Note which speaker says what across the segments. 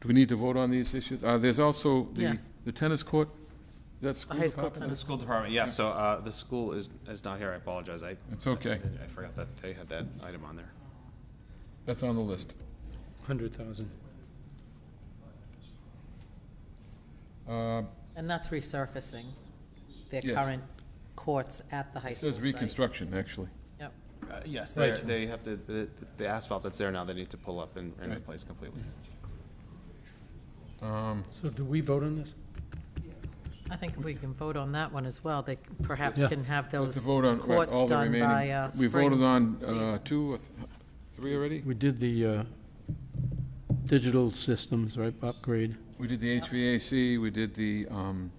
Speaker 1: Do we need to vote on these issues? Uh, There's also the
Speaker 2: Yes.
Speaker 1: the tennis court, that's school
Speaker 2: high school
Speaker 1: department?
Speaker 2: tennis.
Speaker 3: The school department, yeah, so uh, the school is, is not here, I apologize, I.
Speaker 1: It's okay.
Speaker 3: I forgot that they had that item on there.
Speaker 1: That's on the list.
Speaker 4: Hundred thousand.
Speaker 1: Uh,
Speaker 2: And that's resurfacing their
Speaker 1: Yes.
Speaker 2: current courts at the high
Speaker 1: It
Speaker 2: school
Speaker 1: says
Speaker 2: site.
Speaker 1: reconstruction, actually.
Speaker 2: Yep.
Speaker 3: Uh, Yes, they,
Speaker 4: Right.
Speaker 3: they have to, the the asphalt that's there now, they need to pull up and, and
Speaker 1: Right.
Speaker 3: replace completely.
Speaker 1: Um,
Speaker 4: So do we vote on this?
Speaker 2: I think if we can vote on that one as well, they perhaps
Speaker 4: Yeah.
Speaker 2: can have
Speaker 1: we have
Speaker 2: those
Speaker 1: to vote on what,
Speaker 2: courts
Speaker 1: all the
Speaker 2: done
Speaker 1: remaining.
Speaker 2: by uh,
Speaker 1: We
Speaker 2: spring.
Speaker 1: voted on uh,
Speaker 2: season.
Speaker 1: two or th- three already?
Speaker 4: We did the uh, digital systems, right, upgrade,
Speaker 1: We did the HVAC, we did the, um,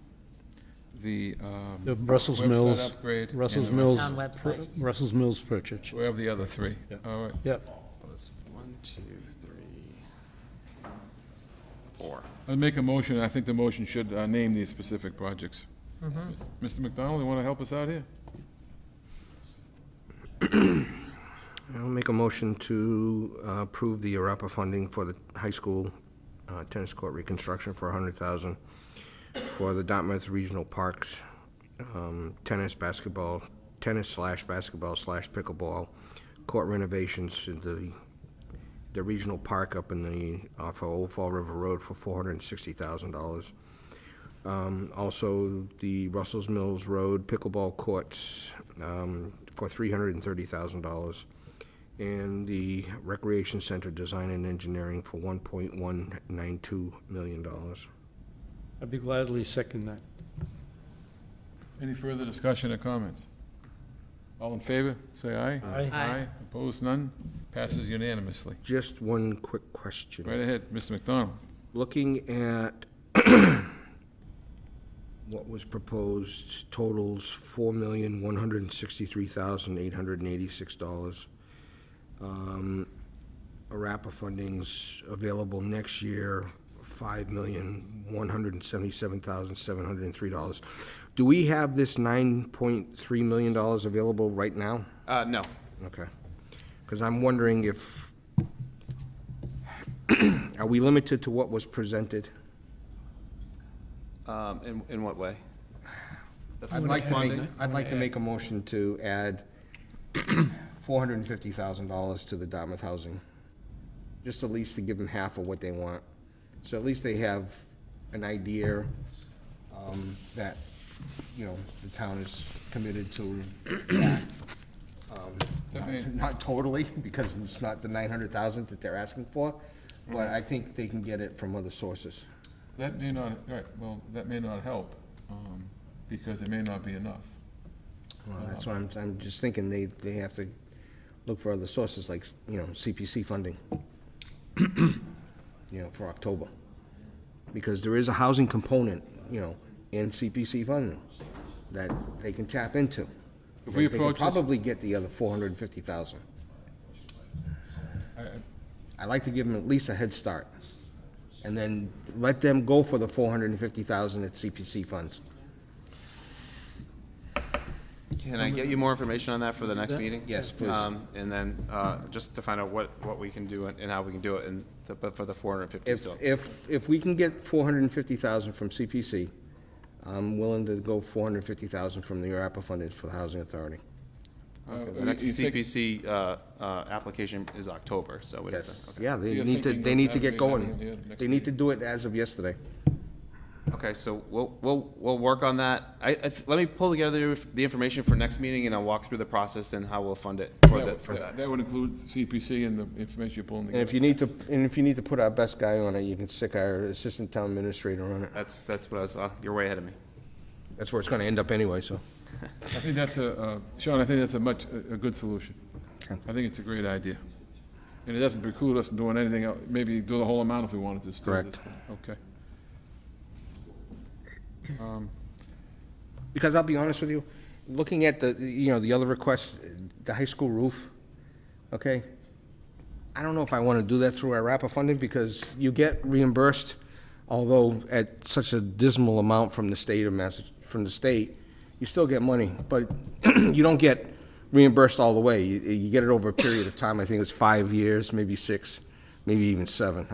Speaker 1: the. um,
Speaker 4: the Brussels
Speaker 1: website
Speaker 4: Mills,
Speaker 1: upgrade and
Speaker 4: Russell's
Speaker 1: the rest.
Speaker 4: Mills.
Speaker 2: Town website.
Speaker 4: Russell's Mills purchase.
Speaker 1: We have the other three.
Speaker 4: Yeah.
Speaker 1: All right.
Speaker 4: Yep,
Speaker 3: Well, That's one, two, three, four.
Speaker 1: I'll make a motion, I think the motion should uh, name these specific projects.
Speaker 2: Mm-hmm.
Speaker 1: Mr. McDonald, you want to help us out here?
Speaker 5: I'll make a motion to uh, approve the ARPA funding for the high school uh, tennis court reconstruction for 100000 for the Dartmouth Regional Parks um, tennis, basketball, tennis slash basketball slash pickleball court renovations in the, the regional park up in the, off of Old Fall River Road for $460,000. Um, Also, the Russell's Mills Road pickleball courts um, for $330,000. And the Recreation Center Design and Engineering for $1.192 million.
Speaker 4: I'd be gladly second that.
Speaker 1: Any further discussion or comments? All in favor, say aye.
Speaker 4: Aye.
Speaker 2: Aye.
Speaker 1: Opposed, none? Passes unanimously.
Speaker 5: Just one quick question.
Speaker 1: Right ahead, Mr. McDonald.
Speaker 5: looking at what was proposed totals four million, one hundred and sixty-three thousand, eight hundred and eighty-six dollars. Um, ARAPA funding's available next year, five million, one hundred and seventy-seven thousand, seven hundred and three dollars. Do we have this nine point three million dollars available right now?
Speaker 3: Uh, no,
Speaker 5: Okay. Because I'm wondering if, are we limited to what was presented?
Speaker 3: um, in, in what way? The
Speaker 5: I'd like to make,
Speaker 3: funding?
Speaker 5: I'd like to make a motion to add four hundred and fifty thousand dollars to the Dartmouth Housing. Just at least to give them half of what they want. So at least they have an idea, um, that, you know, the town is committed to that. Um,
Speaker 1: Definitely.
Speaker 5: not- Not totally, because it's not the nine hundred thousand that they're asking for, but I think they can get it from other sources.
Speaker 1: That may not, right, well, that may not help, um, because it may not be enough.
Speaker 5: Well, that's
Speaker 1: Um,
Speaker 5: why I'm, I'm just thinking they, they have to look for other sources like, you know, CPC funding, you know, for October. Because there is a housing component, you know, in CPC funding that they can tap into.
Speaker 1: If we
Speaker 5: They- they could
Speaker 1: approach this-
Speaker 5: Probably get the other four hundred and fifty thousand.
Speaker 1: I- I-
Speaker 5: I'd like to give them at least a head start. And then let them go for the four hundred and fifty thousand at CPC funds.
Speaker 3: Can I get you more information on that for the next meeting?
Speaker 5: Yes, please.
Speaker 3: Um, And then, uh, just to find out what, what we can do and and how we can do it, and, the- but for the four hundred and fifty,
Speaker 5: If,
Speaker 3: so.
Speaker 5: if, if we can get four hundred and fifty thousand from CPC, I'm willing to go four hundred and fifty thousand from the ARPA funded for the Housing Authority.
Speaker 1: uh,
Speaker 3: The next
Speaker 1: you think-
Speaker 3: CPC, uh, uh, application is October, so we have to. okay.
Speaker 5: Yeah,
Speaker 1: So
Speaker 5: they
Speaker 1: you're
Speaker 5: need to,
Speaker 1: thinking
Speaker 5: they need to
Speaker 1: of
Speaker 5: get
Speaker 1: having it
Speaker 5: going.
Speaker 1: the next
Speaker 5: They need to do it as of yesterday.
Speaker 3: Okay, so we'll, we'll, we'll work on that. I, I, th- let me pull together the information for next meeting, and I'll walk through the process and how we'll fund it for the,
Speaker 1: That
Speaker 3: for
Speaker 1: would-
Speaker 3: that.
Speaker 1: that would include CPC and the information you're pulling
Speaker 5: And
Speaker 1: together.
Speaker 5: if you need to, and if you need to put our best guy on it, you can stick our Assistant Town Administrator on it.
Speaker 3: That's, that's what I was, uh, you're way ahead of me.
Speaker 5: That's where it's gonna end up anyway, so.
Speaker 1: I think that's a, uh, Sean, I think that's a much, a a good solution. I think it's a great idea. And it doesn't preclude us from doing anything, else. maybe do the whole amount if we wanted to. still at this point. Okay.
Speaker 5: Because I'll be honest with you, looking at the, you know, the other requests, the high school roof, okay? I don't know if I want to do that through our RAPA funding because you get reimbursed, although at such a dismal amount from the state of Massa, from the state, you still get money, but you don't get reimbursed all the way. You, you get it over a period of time, I think it was five years, maybe six, maybe even seven.